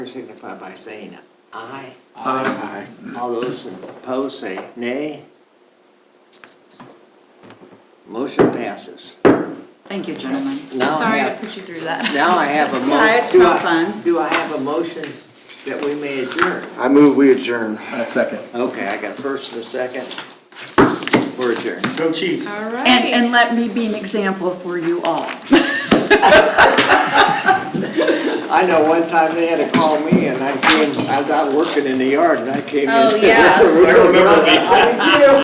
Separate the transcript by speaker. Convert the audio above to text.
Speaker 1: signify by saying aye.
Speaker 2: Aye.
Speaker 3: Aye.
Speaker 1: All those opposed say nay. Motion passes.
Speaker 4: Thank you, gentlemen.
Speaker 1: Now I
Speaker 4: Sorry to
Speaker 1: have-
Speaker 4: put you through that.
Speaker 1: Now I have a motion.
Speaker 4: Yeah, it's so fun.
Speaker 1: Do I have a motion that we may adjourn?
Speaker 3: I move we adjourn.
Speaker 2: A second.
Speaker 1: Okay, I got first and a second. We're adjourned.
Speaker 2: Go Chiefs.
Speaker 5: All right.
Speaker 4: And, and let me be an example for you all.
Speaker 1: I know one time they had to call me and I came, I was out working in the yard and I came in.
Speaker 5: Oh, yeah.
Speaker 1: I remember that. I did too.